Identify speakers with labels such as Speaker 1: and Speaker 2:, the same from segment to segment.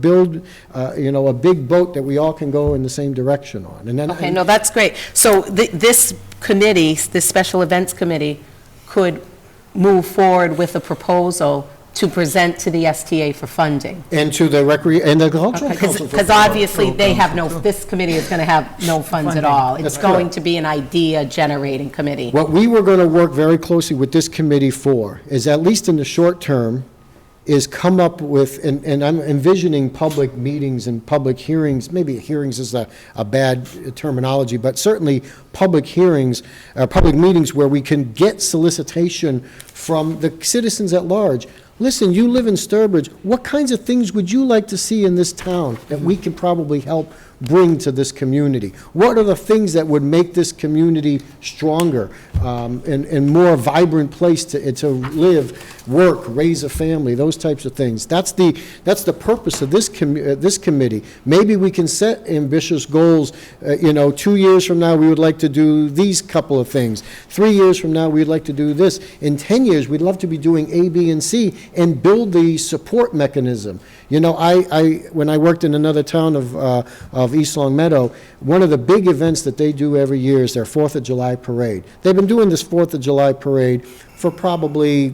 Speaker 1: build, uh, you know, a big boat that we all can go in the same direction on. And then,
Speaker 2: Okay, no, that's great. So thi- this committee, this Special Events Committee, could move forward with a proposal to present to the STA for funding?
Speaker 1: and to the recre, and the cultural council.
Speaker 2: Because obviously, they have no, this committee is going to have no funds at all. It's
Speaker 1: That's correct.
Speaker 2: going to be an idea-generating committee.
Speaker 1: What we were going to work very closely with this committee for is, at least in the short term, is come up with, and, and I'm envisioning public meetings and public hearings, maybe hearings is a, a bad terminology, but certainly public hearings, uh, public meetings where we can get solicitation from the citizens at large. Listen, you live in Sturbridge, what kinds of things would you like to see in this town that we can probably help bring to this community? What are the things that would make this community stronger um, and, and more vibrant place to, to live, work, raise a family, those types of things? That's the, that's the purpose of this commu, uh, this committee. Maybe we can set ambitious goals, uh, you know, two years from now, we would like to do these couple of things. Three years from now, we'd like to do this. In 10 years, we'd love to be doing A, B, and C and build the support mechanism. You know, I, I, when I worked in another town of, uh, of East Long Meadow, one of the big events that they do every year is their Fourth of July parade. They've been doing this Fourth of July parade for probably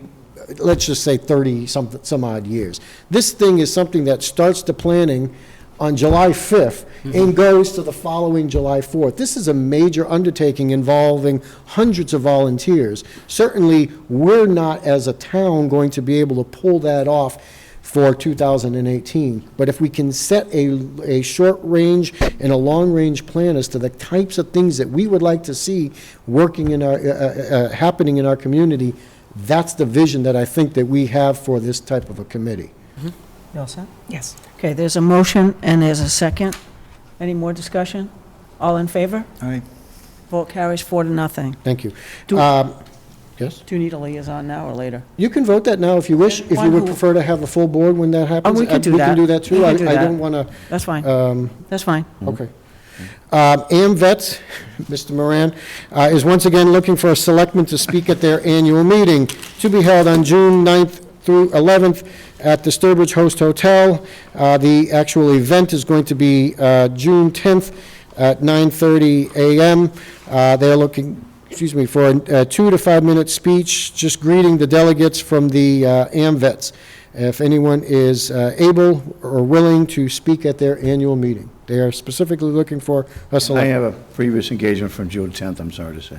Speaker 1: let's just say 30 some, some odd years. This thing is something that starts the planning on July 5th and goes to the following July 4th. This is a major undertaking involving hundreds of volunteers. Certainly, we're not as a town going to be able to pull that off for 2018. But if we can set a, a short-range and a long-range plan as to the types of things that we would like to see working in our, uh, uh, uh, happening in our community, that's the vision that I think that we have for this type of a committee.
Speaker 3: You all set?
Speaker 4: Yes.
Speaker 3: Okay, there's a motion and there's a second. Any more discussion? All in favor?
Speaker 4: Aye.
Speaker 3: Vote carries four to nothing.
Speaker 1: Thank you.
Speaker 3: Do-
Speaker 1: Um, Yes?
Speaker 3: Do you need a liaison now or later?
Speaker 1: You can vote that now if you wish, if you
Speaker 3: One
Speaker 1: would
Speaker 3: who-
Speaker 1: prefer to have a full board when that happens.
Speaker 3: Oh, we can
Speaker 1: Uh,
Speaker 3: do
Speaker 1: We can
Speaker 3: that.
Speaker 1: do that
Speaker 3: We
Speaker 1: too.
Speaker 3: can
Speaker 1: I
Speaker 3: do
Speaker 1: I
Speaker 3: that.
Speaker 1: don't want to
Speaker 3: That's fine,
Speaker 1: um,
Speaker 3: that's fine.
Speaker 1: Okay. Um, AMVets, Mr. Moran, uh, is once again looking for a selectman to speak at their annual meeting to be held on June 9th through 11th at the Sturbridge Host Hotel. Uh, The actual event is going to be uh, June 10th at 9:30 a.m. Uh, They're looking, excuse me, for a two to five-minute speech, just greeting the delegates from the uh, AMVets. If anyone is uh, able or willing to speak at their annual meeting, they are specifically looking for a
Speaker 4: I
Speaker 1: select.
Speaker 4: have a previous engagement from June 10th, I'm sorry to say.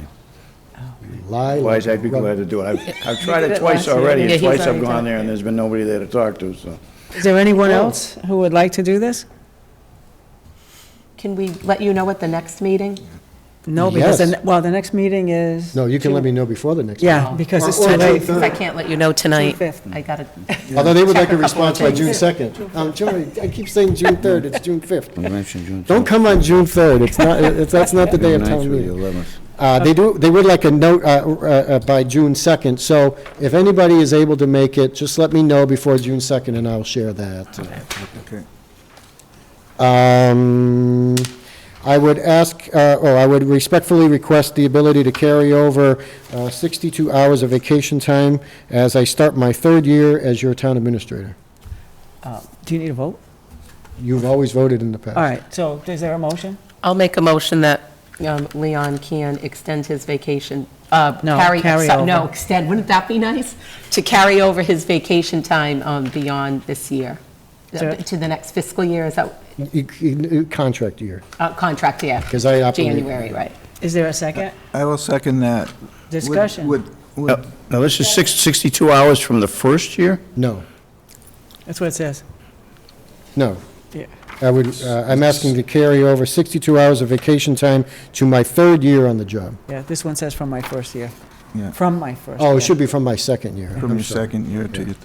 Speaker 1: Lie,
Speaker 4: Otherwise, I'd be
Speaker 1: rub-
Speaker 4: glad to do it. I've- I've tried it twice
Speaker 3: last year.
Speaker 4: already,
Speaker 2: Yeah,
Speaker 4: and
Speaker 2: he's
Speaker 4: twice I've
Speaker 2: already done
Speaker 4: gone
Speaker 2: it,
Speaker 4: there, and there's been nobody there to talk to, so.
Speaker 3: Is there anyone
Speaker 1: oh.
Speaker 3: else who would like to do this?
Speaker 2: Can we let you know at the next meeting?
Speaker 3: No, because, the
Speaker 1: Yes.
Speaker 3: ne- well, the next meeting is...
Speaker 1: No, you can let me know before the next.
Speaker 3: Yeah, because it's
Speaker 1: Or-
Speaker 3: too
Speaker 1: or
Speaker 3: late.
Speaker 1: June
Speaker 2: Because I can't let you know tonight.
Speaker 3: fifth.
Speaker 2: I got to,
Speaker 1: meeting. Although they would like
Speaker 2: Check
Speaker 1: a
Speaker 2: a couple
Speaker 1: response by
Speaker 2: of
Speaker 1: June
Speaker 2: things.
Speaker 1: 2nd. Um, Joey, I keep saying June 3rd, it's June 5th.
Speaker 4: You mentioned June 10th.
Speaker 1: Don't come on June 3rd, it's not, it's- that's not the day of town meeting. Uh, They do, they would like a note uh, uh, uh, by June 2nd, so if anybody is able to make it, just let me know before June 2nd, and I'll share that. Um, I would ask, uh, or I would respectfully request the ability to carry over uh, 62 hours of vacation time as I start my third year as your town administrator.
Speaker 3: Uh, Do you need a vote?
Speaker 1: You've always voted in the past.
Speaker 3: All right, so is there a motion?
Speaker 2: I'll make a motion that um, Leon can extend his vacation, uh,
Speaker 3: No,
Speaker 2: carry,
Speaker 3: carry
Speaker 2: exce- no,
Speaker 3: over.
Speaker 2: extend, wouldn't that be nice? To carry over his vacation time um, beyond this year,
Speaker 3: Sure.
Speaker 2: to the next fiscal year, is that,
Speaker 1: You- you- E, Contract year,
Speaker 2: uh, contract year?
Speaker 1: because I operate.
Speaker 2: January, right.
Speaker 3: Is there a
Speaker 1: Uh,
Speaker 3: second?
Speaker 5: I will second that. Would-
Speaker 3: Discussion.
Speaker 5: would- would-
Speaker 1: Oh,
Speaker 4: Now, this is six- 62 hours from the first year?
Speaker 1: No,
Speaker 3: That's what it says.
Speaker 1: no.
Speaker 3: Yeah.
Speaker 1: I would, uh, I'm asking to carry over 62 hours of vacation time to my third year on the job.
Speaker 3: Yeah, this one says from my first year.
Speaker 5: Yeah.
Speaker 3: From my first year.
Speaker 1: Oh, it should be from my second year.
Speaker 5: From
Speaker 1: I'm
Speaker 5: your
Speaker 1: sorry.
Speaker 5: second year to your,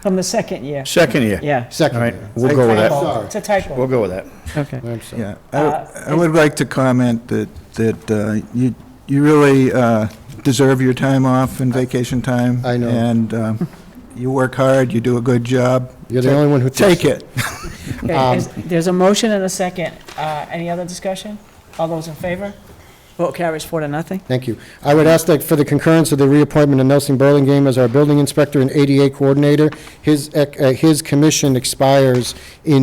Speaker 3: From the second year,
Speaker 4: Second year?
Speaker 3: yeah.
Speaker 1: Second
Speaker 4: All right,
Speaker 1: year.
Speaker 4: we'll go with that.
Speaker 1: Sorry.
Speaker 3: It's a typo.
Speaker 4: We'll go with that.
Speaker 3: Okay.
Speaker 1: I'm sorry.
Speaker 5: yeah.
Speaker 3: Uh,
Speaker 5: I I would like to comment that, that uh, you, you really uh, deserve your time off and vacation time.
Speaker 1: I know.
Speaker 5: And um, you work hard, you do a good job.
Speaker 1: You're the only one who takes
Speaker 5: Take it.
Speaker 3: Okay, is- There's a motion and a second. Uh, Any other discussion? All those in favor? Vote carries four to nothing.
Speaker 1: Thank you. I would ask that for the concurrence of the reappointment of Nelson Burlingame as our building inspector and ADA coordinator. His, ec- uh, his commission expires in